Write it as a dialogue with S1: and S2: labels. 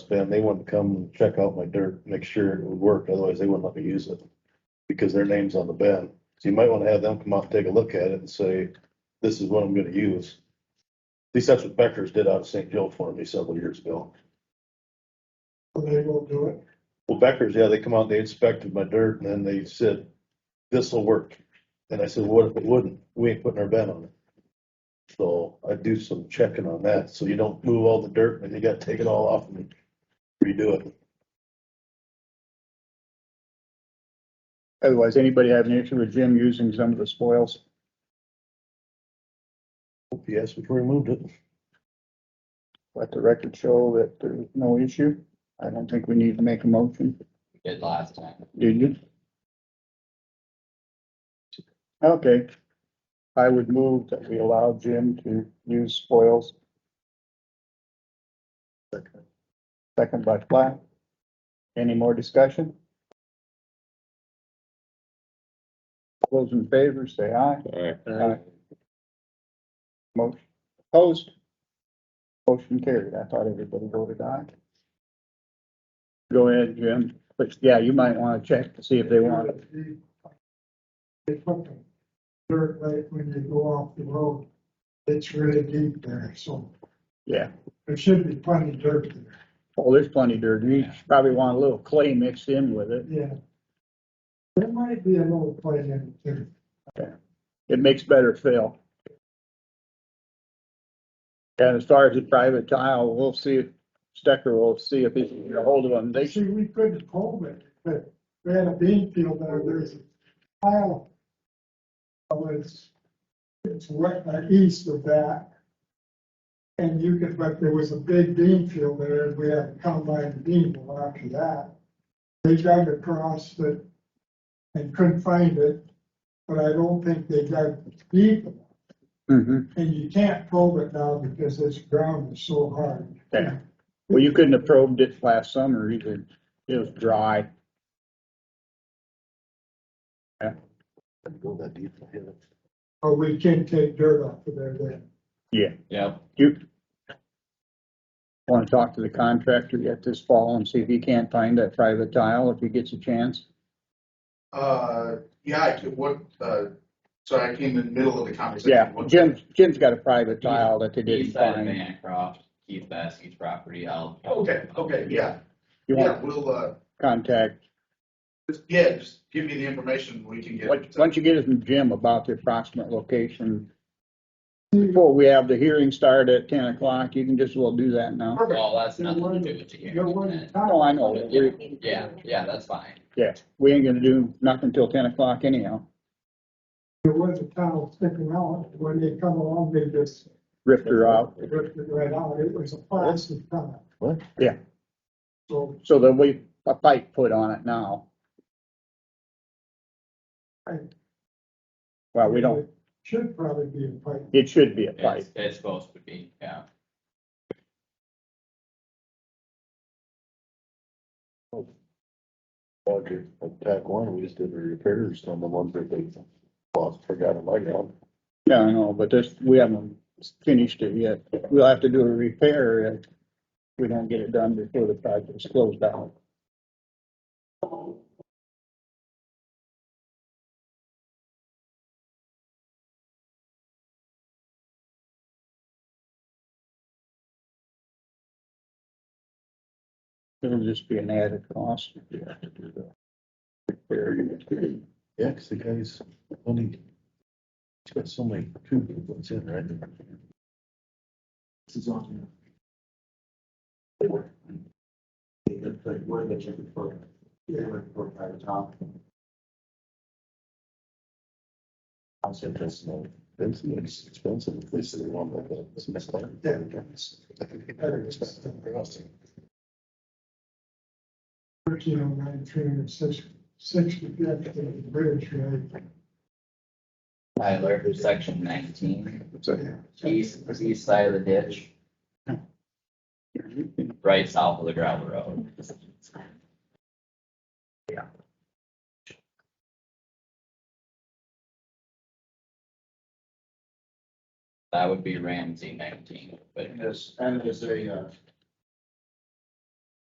S1: been, they wanted to come and check out my dirt, make sure it would work, otherwise they wouldn't let me use it. Because their name's on the bed, so you might wanna have them come out, and take a look at it and say, this is what I'm gonna use. At least that's what Becker's did out of St. Joe for me several years ago.
S2: They will do it.
S1: Well, Becker's, yeah, they come out, they inspected my dirt and then they said, this'll work. And I said, what if it wouldn't? We ain't putting our bed on it. So I do some checking on that, so you don't move all the dirt and you gotta take it all off and redo it.
S3: Otherwise, anybody have an issue with Jim using some of the spoils?
S1: Yes, before we moved it.
S3: Let the record show that there's no issue. I don't think we need to make a motion.
S4: did last time.
S3: Did you? Okay. I would move that we allow Jim to use spoils. Second by Platt. Any more discussion? Those in favor, say aye.
S5: Alright,
S3: Aye. Motion opposed. Motion carried. I thought everybody voted aye. Go ahead, Jim. But yeah, you might want to check to see if they want it.
S2: They put the dirt like when you go off the road, it's really deep there, so
S3: Yeah.
S2: there should be plenty of dirt there.
S3: Well, Oh, there's plenty of dirt. You probably want a little clay mixed in with it.
S2: Yeah. There might be a little play in it too.
S3: It makes better fill. And as far as the private tile, we'll see, if Stecker will see if he can get a hold of them. They should,
S2: See, we couldn't hold it, but we had a bean field there, there's a pile. Well, it's, it's wet uh, east of that. And you could, but there was a big bean field there, and we had combine the bean well after that. They dug across it and couldn't find it, but I don't think they dug deep. enough.
S3: Mhm.
S2: And you can't probe it now because this ground is so hard.
S3: Yeah. well, you couldn't have probed it last summer either. It was dry.
S1: Go that deep. yeah.
S2: Or we can take dirt off of there then.
S4: Yep.
S3: You want to talk to the contractor yet this fall and see if he can't find that private tile, if he gets a chance?
S6: Uh, yeah, I could, what, uh, sorry, I came in the middle of the conversation.
S3: Yeah,
S6: What-
S3: Jim's, Jim's got a private tile that they didn't
S4: East side of
S3: find.
S4: Bancroft, Keith Baskey's property, I'll.
S6: Okay, okay, yeah,
S3: You
S6: yeah,
S3: want to
S6: we'll, uh,
S3: contact,
S6: just, yeah, just give me the information, we can get.
S3: why why don't you get it from Jim about the approximate location? Before we have the hearing start at ten o'clock, you can just, well, do that now.
S6: Perfect,
S4: Well, that's nothing to do with the
S2: You're
S4: hearing.
S2: one
S4: tonight.
S3: No, I know,
S4: Yeah,
S3: we,
S4: yeah, yeah, that's fine.
S3: yeah, we ain't gonna do nothing till ten o'clock anyhow.
S2: there was a tile sticking out, when they come along, they just
S3: Ripped her out,
S2: ripped it right out, it was a plastic tile.
S1: What?
S3: Yeah.
S2: So
S3: so there'll be a pipe put on it now.
S2: Right.
S3: Well, Uh, we don't,
S2: it Should probably be a pipe,
S3: it should be a pipe.
S4: It's, it's supposed to be, yeah.
S1: Roger, attack one, we just did repairs on the ones that they lost, forgot about.
S3: Yeah, I know, but this, we haven't finished it yet. We'll have to do a repair if we don't get it done before the project's closed down. It'll just be an added cost.
S1: Yeah, cause the guy's only, he's got so many tubes in, right?
S7: This is on. They were. They looked like where they checked for, they were for private top. I'll say this, no.
S1: It's it's expensive, they said they want like that. It's messed up.
S7: Yeah, I guess.
S2: better just thirteen oh nine, three hundred sixty, sixty, that's the bridge, right?
S4: Tyler, section nineteen,
S3: So,
S4: east, east side of the ditch, right south of the gravel road. That would be Ramsey nineteen, but
S7: And there's, and there's a, uh,